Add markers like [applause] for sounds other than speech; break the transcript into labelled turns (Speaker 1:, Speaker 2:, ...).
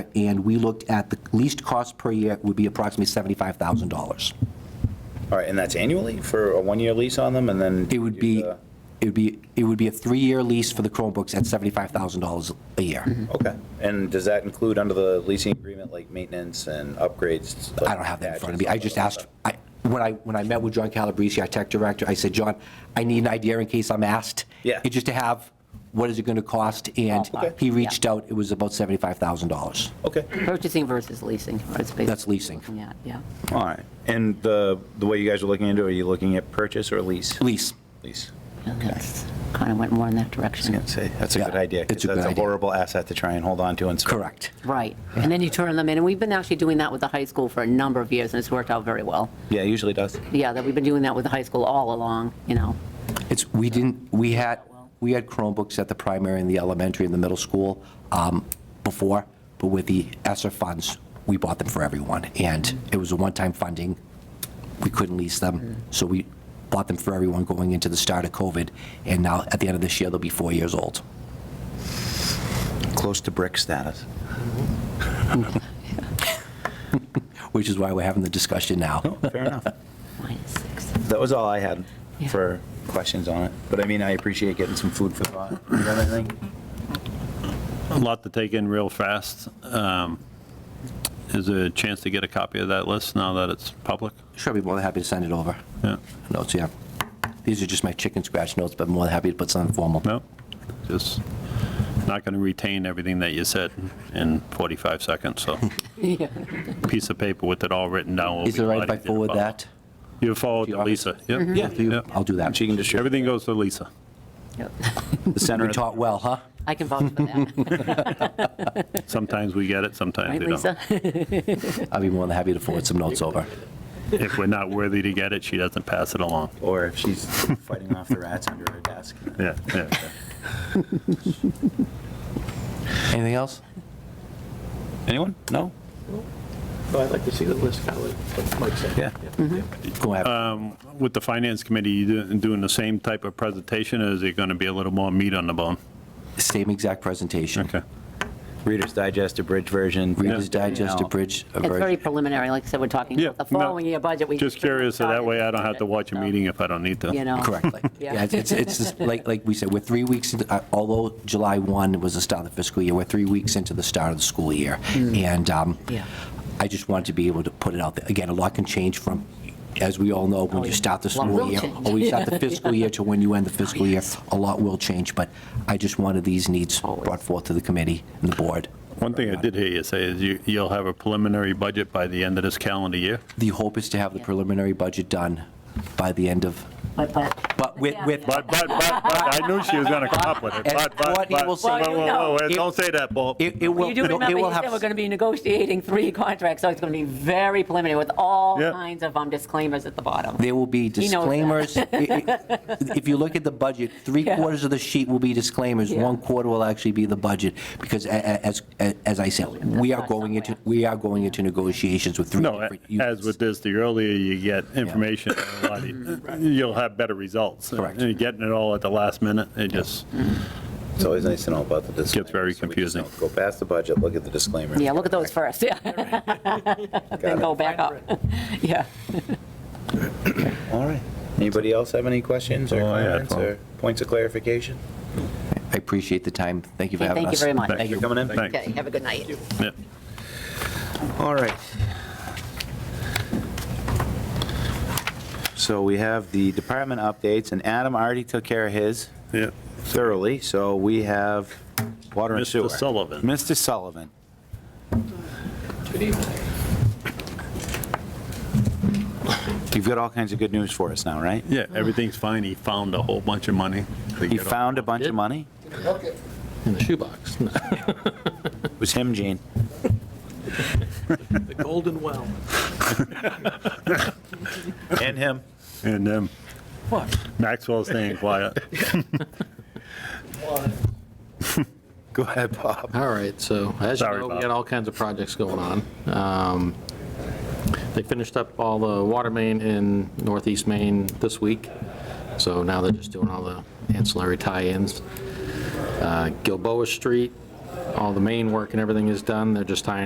Speaker 1: and we looked at the least cost per year would be approximately $75,000.
Speaker 2: All right, and that's annually for a one-year lease on them, and then?
Speaker 1: It would
Speaker 2: do
Speaker 1: be,
Speaker 2: the-
Speaker 1: it would be, it would be a three-year lease for the Chromebooks at $75,000 a year.
Speaker 2: Okay, and does that include under the leasing agreement, like maintenance and upgrades?
Speaker 1: I don't have that in front of me. I just asked, I, when I, when I met with John Calabrese, our tech director, I said, John, I need an idea in case I'm asked.
Speaker 2: Yeah.
Speaker 1: And Just to have, what is it going to cost? And
Speaker 2: Oh, okay.
Speaker 1: he reached out, it was about $75,000.
Speaker 2: Okay,
Speaker 3: Purchasing versus leasing, or it's basically.
Speaker 1: That's leasing.
Speaker 3: Yeah, yeah.
Speaker 2: all right. And the, the way you guys are looking into, it, are you looking at purchase or lease?
Speaker 1: Lease.
Speaker 2: Lease.
Speaker 3: Kind of went more in that
Speaker 2: I was
Speaker 3: direction.
Speaker 2: gonna say, that's a
Speaker 1: Yeah,
Speaker 2: good idea. 'cause
Speaker 1: it's a good
Speaker 2: That's a
Speaker 1: idea.
Speaker 2: horrible asset to try and hold on to and. sell.
Speaker 1: Correct.
Speaker 3: Right. And then you turn them in, and we've been actually doing that with the high school for a number of years, and it's worked out very well.
Speaker 2: Yeah, it usually does.
Speaker 3: Yeah, that we've been doing that with the high school all along, you know.
Speaker 1: It's, we didn't, we had, we had Chromebooks at the primary and the elementary and the middle school um, before, but with the ESSER funds, we bought them for everyone. And it was a one-time funding. We couldn't lease them, so we bought them for everyone going into the start of COVID. And now, at the end of this year, they'll be four years old.
Speaker 2: Close to brick [laughs] status.
Speaker 1: Which is why we're having the discussion now.
Speaker 2: Fair enough.
Speaker 3: Minus six.
Speaker 2: That was all I had
Speaker 3: Yeah.
Speaker 2: for questions on it. But I mean, I appreciate getting some food for thought. You got anything?
Speaker 4: A lot to take in real fast. Um, Is there a chance to get a copy of that list now that it's public?
Speaker 1: Sure, I'd be more than happy to send it over.
Speaker 4: Yeah,
Speaker 1: Notes, yeah. These are just my chicken scratch notes, but more than happy to put something formal.
Speaker 4: no, just not going to retain everything that you said in 45 seconds, so [laughs]
Speaker 3: Yeah.
Speaker 4: piece of paper with it all written down. will
Speaker 1: Is
Speaker 4: be
Speaker 1: it right if
Speaker 4: mighty
Speaker 1: I forward
Speaker 4: difficult.
Speaker 1: that?
Speaker 4: You
Speaker 1: To
Speaker 4: forward to
Speaker 1: your office?
Speaker 4: Lisa, yep.
Speaker 1: To you? I'll do that.
Speaker 2: She can distribute.
Speaker 4: Everything goes to Lisa.
Speaker 3: Yep.
Speaker 2: The center
Speaker 1: We
Speaker 2: of-
Speaker 1: taught well, huh?
Speaker 3: I can vouch for that,
Speaker 4: Sometimes we get it, sometimes
Speaker 3: right,
Speaker 4: we don't.
Speaker 3: Lisa? [laughs]
Speaker 1: I'd be more than happy to forward some notes over.
Speaker 4: If we're not worthy to get it, she doesn't pass it along.
Speaker 2: Or if she's fighting off the rats under her desk.
Speaker 4: Yeah, yeah. yeah.
Speaker 1: Anything else?
Speaker 2: Anyone? No?
Speaker 5: Well, I'd like to see the list, kind of like Mike said.
Speaker 2: Yeah.
Speaker 5: Mm-hmm.
Speaker 1: Go ahead.
Speaker 4: With the finance committee, you do- doing the same type of presentation, or is it going to be a little more meat on the bone?
Speaker 1: Same exact presentation.
Speaker 4: Okay.
Speaker 2: [laughs] Reader's Digest, abridged version.
Speaker 1: Reader's
Speaker 2: Yeah.
Speaker 1: Digest,
Speaker 2: No.
Speaker 1: abridged,
Speaker 3: It's very
Speaker 1: abridged.
Speaker 3: preliminary, like I said, we're talking
Speaker 4: Yeah,
Speaker 3: about the
Speaker 4: no,
Speaker 3: following year budget. We-
Speaker 4: Just curious, so that way I don't have to watch a meeting if I don't need
Speaker 3: You
Speaker 4: to.
Speaker 3: know.
Speaker 1: Correctly.
Speaker 3: [laughs] Yeah.
Speaker 1: Yeah, it's, it's- it's, just like, like we said, we're three weeks, into- uh, although July 1 was the start of the fiscal year, we're three weeks into the start of the school year. And um,
Speaker 3: Mm. Yeah.
Speaker 1: I just wanted to be able to put it out there. Again, a lot can change from, as we all know, when
Speaker 3: Oh,
Speaker 1: you
Speaker 3: yeah.
Speaker 1: start the
Speaker 3: A lot will
Speaker 1: school year.
Speaker 3: change. Oh,
Speaker 1: Or you start
Speaker 3: [laughs]
Speaker 1: the fiscal year to when you end the fiscal year, a lot will change. But I just wanted these needs
Speaker 3: Always.
Speaker 1: brought forth to the committee and the board.
Speaker 4: One thing I did hear you say is you, you'll have a preliminary budget by the end of this calendar year.
Speaker 1: The hope is to have the
Speaker 3: Yeah.
Speaker 1: preliminary budget done by the end of,
Speaker 3: But, but.
Speaker 1: but with, with,
Speaker 4: But, but, but, but, I knew she was going to come up with it,
Speaker 1: And
Speaker 4: but, but,
Speaker 1: Courtney
Speaker 4: but.
Speaker 1: will say-
Speaker 4: Whoa,
Speaker 3: Well, you
Speaker 4: whoa,
Speaker 3: know.
Speaker 4: whoa, Don't say that, Paul.
Speaker 1: it it will,
Speaker 3: You do
Speaker 1: no, it
Speaker 3: remember
Speaker 1: will
Speaker 3: he said we're
Speaker 1: have,
Speaker 3: going to be negotiating three contracts, so it's going to be very preliminary with all
Speaker 4: Yeah.
Speaker 3: kinds of um, disclaimers at the bottom.
Speaker 1: there will be
Speaker 3: knows that.
Speaker 1: disclaimers. I- I- If you look at the budget, three
Speaker 3: Yeah.
Speaker 1: quarters of the sheet will be disclaimers,
Speaker 3: Yeah.
Speaker 1: one quarter will actually be the budget, because a- a- as, a- as I said, we are
Speaker 3: not
Speaker 1: going into,
Speaker 3: somewhere.
Speaker 1: we are going into negotiations with three
Speaker 4: No,
Speaker 1: different
Speaker 4: as
Speaker 1: units.
Speaker 4: with this, the earlier you get information, the lot you- you'll have better results.
Speaker 1: Correct.
Speaker 4: And Getting it all at the last minute, it just,
Speaker 2: It's always nice to know about the disclaimer.
Speaker 4: Gets very
Speaker 2: so we just
Speaker 4: confusing.
Speaker 2: don't Go past the budget, look at the disclaimer.
Speaker 3: Yeah, look at those first, [laughs] yeah. Then go back up. [laughs] Yeah.
Speaker 2: All right. Anybody else have any questions or
Speaker 4: Oh, yeah,
Speaker 2: comments
Speaker 4: Paul.
Speaker 2: or points of clarification?
Speaker 1: I appreciate the time, thank you for
Speaker 3: Okay,
Speaker 1: having
Speaker 3: Thank you
Speaker 1: us.
Speaker 3: very much.
Speaker 2: Thank you for coming in.
Speaker 4: thanks.
Speaker 3: Okay, have a good night.
Speaker 4: Yeah.
Speaker 2: All right. So we have the department updates, and Adam already took care of his
Speaker 4: Yeah.
Speaker 2: thoroughly, so we have water and
Speaker 4: Mr.
Speaker 2: sewer.
Speaker 4: Sullivan.
Speaker 2: Mr. Sullivan.
Speaker 5: Good evening.
Speaker 2: You've got all kinds of good news for us now, right?
Speaker 4: Yeah, everything's fine. He found a whole bunch of money.
Speaker 2: He
Speaker 4: to get off.
Speaker 2: found a bunch of money?
Speaker 5: In [laughs] the shoebox.
Speaker 2: It was him, Gene.
Speaker 5: The golden well.
Speaker 2: And him.
Speaker 4: And um,
Speaker 5: What?
Speaker 4: Maxwell's staying quiet.
Speaker 2: Go ahead, Bob.
Speaker 5: All right, so as you
Speaker 4: Sorry,
Speaker 5: know, we
Speaker 4: Bob.
Speaker 5: got all kinds of projects going on. Um, They finished up all the water main in northeast Maine this week, so now they're just doing all the ancillary tie-ins. Uh, Gilboa Street, all the main work and everything is done, they're just tying